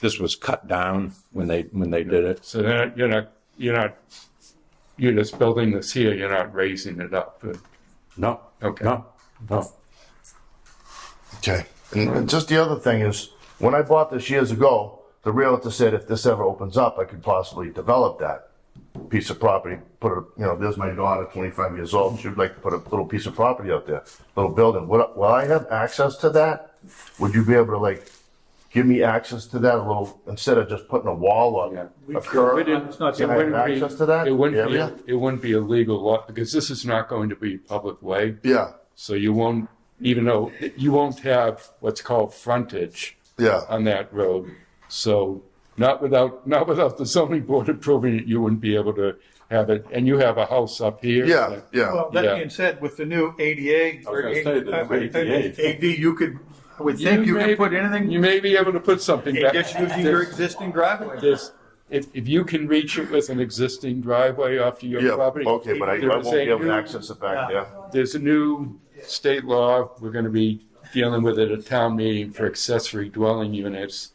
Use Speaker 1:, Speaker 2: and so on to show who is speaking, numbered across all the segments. Speaker 1: this was cut down when they, when they did it.
Speaker 2: So they're not- you're not, you're not, you're just building this here, you're not raising it up. but-
Speaker 1: No,
Speaker 2: Okay.
Speaker 1: no, no.
Speaker 3: Okay. And, and just the other thing is, when I bought this years ago, the realtor said if this ever opens up, I could possibly develop that piece of property. Put a, you know, there's my daughter, 25 years old. She'd like to put a little piece of property out there, little building. Would, I- will I have access to that? Would you be able to like give me access to that a little instead of just putting a wall up?
Speaker 2: Yeah.
Speaker 3: A curb?
Speaker 2: It's not-
Speaker 3: Can
Speaker 2: it
Speaker 3: I have
Speaker 2: wouldn't be-
Speaker 3: access to that
Speaker 2: It wouldn't
Speaker 3: area?
Speaker 2: be, it wouldn't be a legal lot because this is not going to be a public way.
Speaker 3: Yeah,
Speaker 2: So you won't, even though, you won't have what's called frontage
Speaker 3: yeah.
Speaker 2: on that road. So not without, not without the zoning board approving it, you wouldn't be able to have it. And you have a house up here.
Speaker 3: Yeah, yeah.
Speaker 4: Well, that
Speaker 2: Yeah.
Speaker 4: being said, with the new ADA.
Speaker 1: I was gonna say, the
Speaker 4: I would think
Speaker 1: ADA.
Speaker 4: AD, you could, I would think you
Speaker 2: may-
Speaker 4: could put anything,
Speaker 2: You
Speaker 4: you
Speaker 2: may be able to put something back.
Speaker 4: just using your existing driveway.
Speaker 2: There's- if, if you can reach it with an existing driveway off to your
Speaker 3: Yeah,
Speaker 2: property.
Speaker 3: okay, but I, I
Speaker 2: there
Speaker 3: won't
Speaker 2: is
Speaker 3: be
Speaker 2: a
Speaker 3: able to
Speaker 2: new-
Speaker 3: access it back there.
Speaker 2: There's a new state law, we're gonna be dealing with it at town meeting for accessory dwelling units.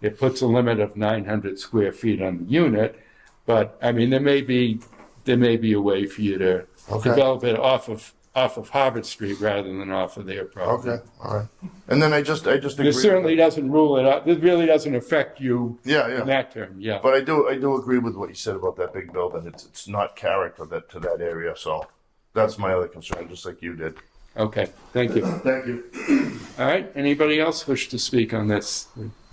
Speaker 2: It puts a limit of nine hundred square feet on the unit, but, I mean, there may be, there may be a way for you to
Speaker 3: Okay.
Speaker 2: develop it off of, off of Harvard Street rather than off of their property.
Speaker 3: Okay, all right. And then I just, I just agree.
Speaker 2: This
Speaker 3: with
Speaker 2: certainly
Speaker 3: that.
Speaker 2: doesn't rule it out, this really doesn't affect you
Speaker 3: Yeah,
Speaker 2: in
Speaker 3: yeah.
Speaker 2: that term, yeah.
Speaker 3: But I do, I do agree with what you said about that big building. It's, it's not character that, to that area, so that's my other concern, just like you did.
Speaker 2: Okay, thank you.
Speaker 3: Thank you.
Speaker 2: All right, anybody else wish to speak on this?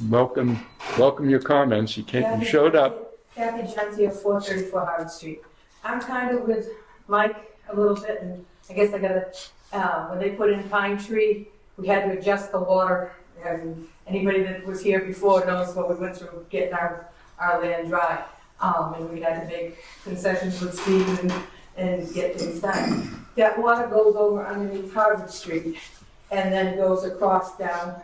Speaker 2: Welcome, welcome your comments, you came, you showed up.
Speaker 5: Kathy Johns here, four thirty-four Howard Street. I'm kind of with Mike a little bit, and I guess I gotta, uh, when they put in Pine Tree, we had to adjust the water, and anybody that was here before knows what we went through getting our, our land dry. Um, and we had to make concessions with Steve and, and get things done. That water goes over underneath Harvard Street, and then goes across down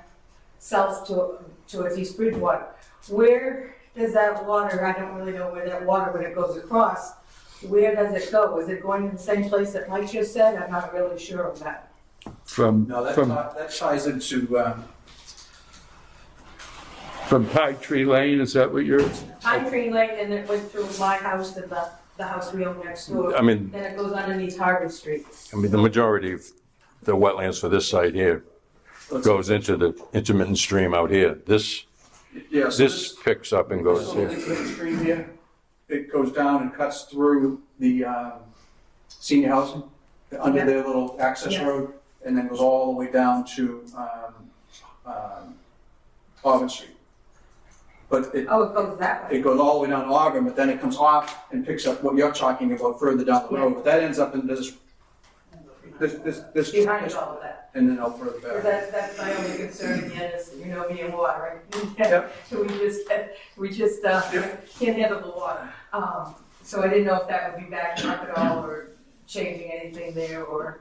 Speaker 5: south to, towards East Bridgewater. Where does that water, I don't really know where that water, when it goes across, where does it go? Is it going to the same place that Mike just said? I'm not really sure of that.
Speaker 2: from,
Speaker 6: No, that,
Speaker 2: from,
Speaker 6: ti- that ties into, um,
Speaker 2: from Pine Tree Lane, is that what you're,
Speaker 5: Pine Tree Lane, and it went through my house and the, the house we own next door.
Speaker 1: I mean-
Speaker 5: Then it goes underneath Harvard Street.
Speaker 1: I mean, the majority of the wetlands for this site here goes into the intermittent stream out here. This,
Speaker 6: yeah, so
Speaker 1: this
Speaker 6: this,
Speaker 1: picks up and
Speaker 6: this
Speaker 1: goes
Speaker 6: little
Speaker 1: here.
Speaker 6: inlet stream here, it goes down and cuts through the, um, senior housing, under
Speaker 5: Yeah.
Speaker 6: their little access
Speaker 5: Yeah.
Speaker 6: road, and then goes all the way down to, um, um, Auburn Street. But it,
Speaker 5: Oh, it goes that way.
Speaker 6: it goes all the way down to Auburn, but then it comes off and picks up what you're talking about further down the road, but that ends up in this, this, this, this.
Speaker 5: Behind all of that.
Speaker 6: And then out further back.
Speaker 5: Because that, that's my only concern again is, you know, me and water, right?
Speaker 6: Yep.
Speaker 5: So we just, we just, uh,
Speaker 6: Yep.
Speaker 5: can't handle the water. Um, so I didn't know if that would be backing up at all or changing anything there or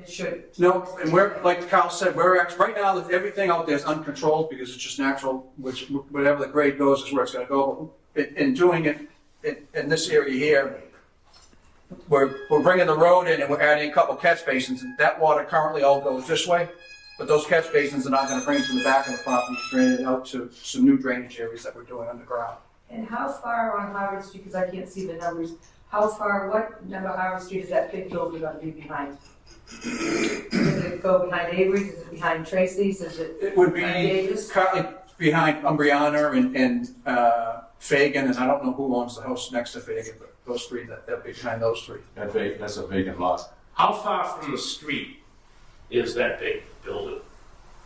Speaker 5: it should.
Speaker 6: No, and we're, like Kyle said, we're, act- right now, that everything out there is uncontrolled because it's just natural, which, whatever the grade goes is where it's gonna go. In, in doing it, in, in this area here, we're, we're bringing the road in and we're adding a couple catch basins, and that water currently all goes this way. But those catch basins are not gonna bring it from the back of the property, drain it out to some new drainage areas that we're doing underground.
Speaker 5: And how far on Howard Street, because I can't see the numbers, how far, what number Howard Street is that big building gonna be behind? Does it go behind Avery's? Is it behind Tracy's? Is it?
Speaker 6: It would be
Speaker 5: behind Davis?
Speaker 6: currently behind Umbriana and, and uh, Fagan, and I don't know who owns the house next to Fagan, but those three, that, that behind those three.
Speaker 7: That big, that's a vacant lot.
Speaker 8: How far from the street is that big building?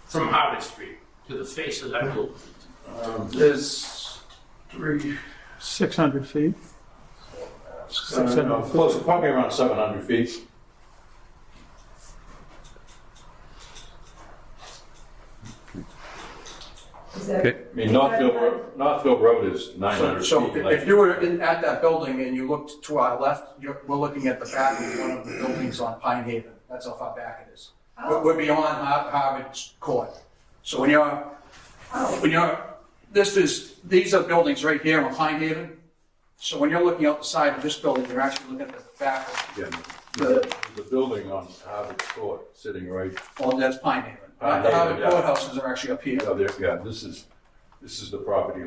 Speaker 8: From Harvard Street to the face of that building?
Speaker 6: There's three.
Speaker 4: Six hundred feet. Six hundred
Speaker 7: Uh, Close, probably around seven hundred feet.
Speaker 5: Is that-
Speaker 2: Okay.
Speaker 7: I mean, Northfield Road, Northfield Road is nine
Speaker 6: So,
Speaker 7: hundred
Speaker 6: so
Speaker 7: feet.
Speaker 6: if
Speaker 7: like-
Speaker 6: you were in, at that building and you looked to our left, you're, we're looking at the back of one of the buildings on Pine Haven. That's how far back it is. We're,
Speaker 5: Oh,
Speaker 6: we're beyond Har- Harvard's Court. So when you're
Speaker 5: oh,
Speaker 6: When you're, this is, these are buildings right here on Pine Haven. So when you're looking out the side of this building, you're actually looking at the back of,
Speaker 7: Yeah, The the building on Harvard Court, sitting right,
Speaker 6: well, that's Pine Haven.
Speaker 7: Pine
Speaker 6: The
Speaker 7: Haven,
Speaker 6: Harvard
Speaker 7: yeah.
Speaker 6: courthouses are actually up here.
Speaker 7: yeah, there, yeah, this is, this is the property line.